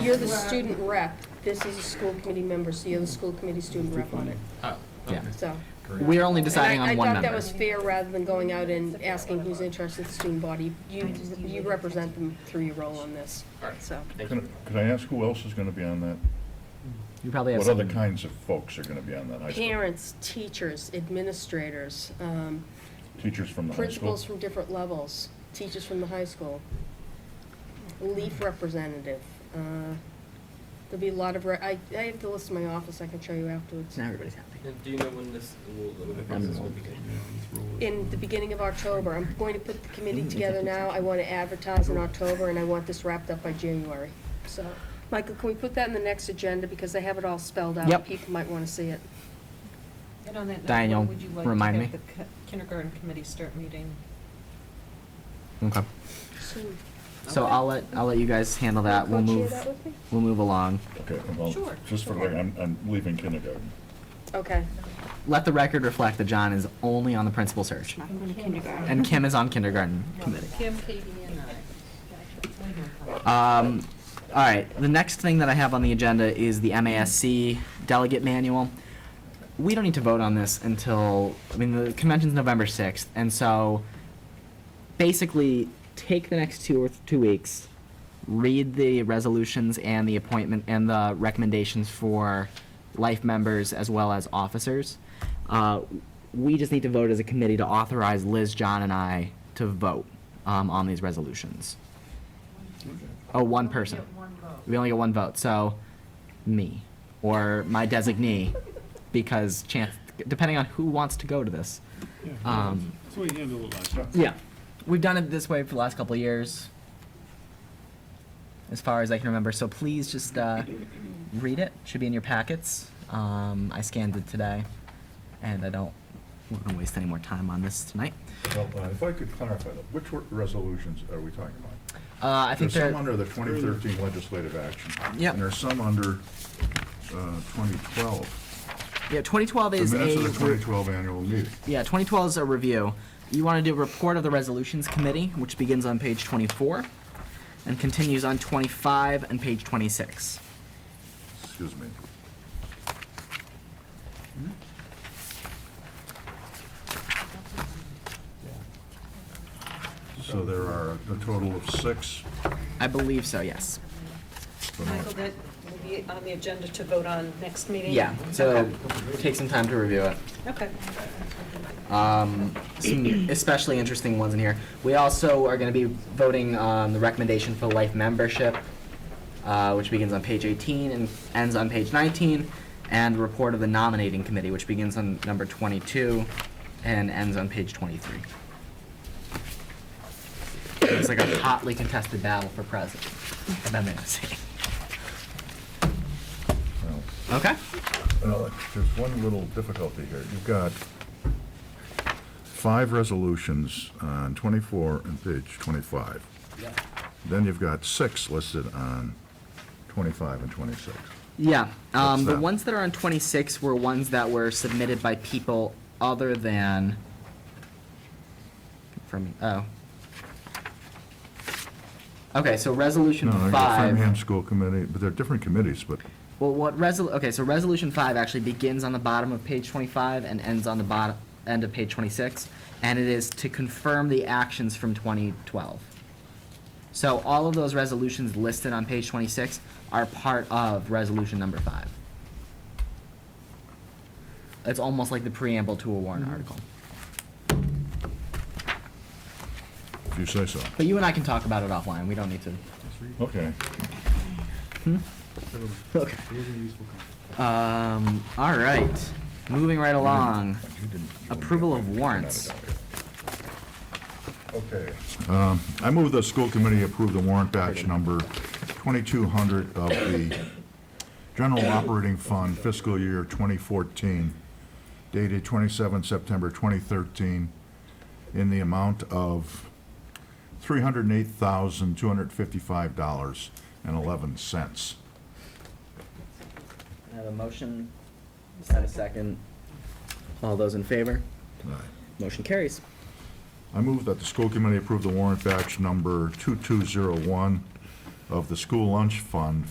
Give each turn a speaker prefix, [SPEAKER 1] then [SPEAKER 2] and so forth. [SPEAKER 1] you're the student rep, this is a school committee member, so you're the school committee student rep on it,
[SPEAKER 2] Oh,
[SPEAKER 3] Yeah.
[SPEAKER 2] okay.
[SPEAKER 1] so.
[SPEAKER 3] We're only deciding
[SPEAKER 1] And I-
[SPEAKER 3] on one
[SPEAKER 1] I thought that
[SPEAKER 3] member.
[SPEAKER 1] was fair, rather than going out and asking who's interested in the student body. You, you represent them through your role on this,
[SPEAKER 2] All right.
[SPEAKER 1] so.
[SPEAKER 2] Thank you.
[SPEAKER 4] Can can I ask who else is going to be on that?
[SPEAKER 3] You probably have
[SPEAKER 4] What
[SPEAKER 3] some.
[SPEAKER 4] other kinds of folks are going to be on that high school?
[SPEAKER 1] Parents, teachers, administrators, um,
[SPEAKER 4] Teachers from the high school?
[SPEAKER 1] principals from different levels, teachers from the high school, LEAF representative. uh, There'll be a lot of, re- I, I have the list in my office, I can show you afterwards.
[SPEAKER 3] Now everybody's happy.
[SPEAKER 2] And do you know when this, will- when the process will begin?
[SPEAKER 1] In the beginning of October, I'm going to put the committee together now, I want to advertise in October, and I want this wrapped up by January, so. Michael, can we put that in the next agenda, because I have it all spelled out?
[SPEAKER 3] Yep.
[SPEAKER 1] People might want to see it.
[SPEAKER 5] And on that note,
[SPEAKER 3] Diane,
[SPEAKER 5] when
[SPEAKER 3] you'll
[SPEAKER 5] would you like
[SPEAKER 3] remind
[SPEAKER 5] to
[SPEAKER 3] me?
[SPEAKER 5] have the ki- kindergarten committee start meeting?
[SPEAKER 3] Okay.
[SPEAKER 1] Soon.
[SPEAKER 3] So
[SPEAKER 5] Okay.
[SPEAKER 3] I'll let, I'll let you guys handle that. We'll
[SPEAKER 1] Coach, you
[SPEAKER 3] move,
[SPEAKER 1] that with me?
[SPEAKER 3] we'll move along.
[SPEAKER 4] Okay, well,
[SPEAKER 5] Sure.
[SPEAKER 4] just for, the record, I'm, I'm leaving kindergarten.
[SPEAKER 1] Okay.
[SPEAKER 3] Let the record reflect that John is only on the principal search.
[SPEAKER 5] I'm going to kindergarten.
[SPEAKER 3] And Kim is on kindergarten committee.
[SPEAKER 5] Kim, Katie, and I.
[SPEAKER 3] Um, all right, the next thing that I have on the agenda is the MASC delegate manual. We don't need to vote on this until, I mean, the convention's November sixth, and so basically, take the next two or th- two weeks, read the resolutions and the appointment and the recommendations for life members as well as officers. Uh, we just need to vote as a committee to authorize Liz, John, and I to vote, um, on these resolutions. Oh, one person. We only get one vote, so me or my designee, because chance, depending on who wants to go to this. Um,
[SPEAKER 6] That's what you handled it last time.
[SPEAKER 3] yeah, we've done it this way for the last couple of years, as far as I can remember. So please just uh, read it. Should be in your packets. Um, I scanned it today, and I don't want to waste any more time on this tonight.
[SPEAKER 4] Well, uh, if I could clarify, though, which were- resolutions are we talking about?
[SPEAKER 3] Uh, I think
[SPEAKER 4] There's some
[SPEAKER 3] there.
[SPEAKER 4] under the 2013 legislative action.
[SPEAKER 3] Yep.
[SPEAKER 4] And there's some under uh, 2012.
[SPEAKER 3] Yeah, 2012
[SPEAKER 4] The
[SPEAKER 3] is
[SPEAKER 4] minutes
[SPEAKER 3] a
[SPEAKER 4] of the
[SPEAKER 3] group-
[SPEAKER 4] 2012 annual meeting.
[SPEAKER 3] Yeah, 2012 is a review. You want to do a report of the resolutions committee, which begins on page 24 and continues on 25 and page 26.
[SPEAKER 4] Excuse me. So there are a total of six.
[SPEAKER 3] I believe so, yes.
[SPEAKER 5] Michael, that will be on the agenda to vote on next meeting?
[SPEAKER 3] Yeah, so take some time to review it.
[SPEAKER 5] Okay.
[SPEAKER 3] Um, some especially interesting ones in here. We also are going to be voting on the recommendation for life membership, uh, which begins on page 18 and ends on page 19, and report of the nominating committee, which begins on number 22 and ends on page 23. It's like a hotly contested battle for president. if I'm gonna say.
[SPEAKER 4] Well,
[SPEAKER 3] Okay.
[SPEAKER 4] Alex, there's one little difficulty here. You've got five resolutions on 24 and page 25. Then you've got six listed on 25 and 26.
[SPEAKER 3] Yeah, um,
[SPEAKER 4] What's
[SPEAKER 3] the
[SPEAKER 4] that?
[SPEAKER 3] ones that are on twenty-six were ones that were submitted by people other than, from, oh. Okay, so resolution
[SPEAKER 4] No, you've got Framingham
[SPEAKER 3] five,
[SPEAKER 4] School Committee, but they're different committees, but
[SPEAKER 3] well, what resol, okay, so resolution five actually begins on the bottom of page twenty-five and ends on the bottom, end of page twenty-six, and it is to confirm the actions from twenty twelve. So all of those resolutions listed on page twenty-six are part of resolution number five. It's almost like the preamble to a warrant article.
[SPEAKER 4] if you say so.
[SPEAKER 3] But you and I can talk about it offline, we don't need to.
[SPEAKER 4] Okay.
[SPEAKER 3] Okay. Um, all right, moving right along.
[SPEAKER 4] You didn't- you wouldn't
[SPEAKER 3] Approval
[SPEAKER 4] get
[SPEAKER 3] of
[SPEAKER 4] that. You're
[SPEAKER 3] warrants.
[SPEAKER 4] not a delegate. Okay. Um, I move the school committee approve the warrant batch number 2200 of the General Operating Fund fiscal year 2014 dated 27 September 2013 in the amount of $308,255.11.
[SPEAKER 3] I have a motion, and a second. All those in favor?
[SPEAKER 4] All right.
[SPEAKER 3] Motion carries.
[SPEAKER 4] I move that the school committee approve the warrant batch number 2201 of the school lunch fund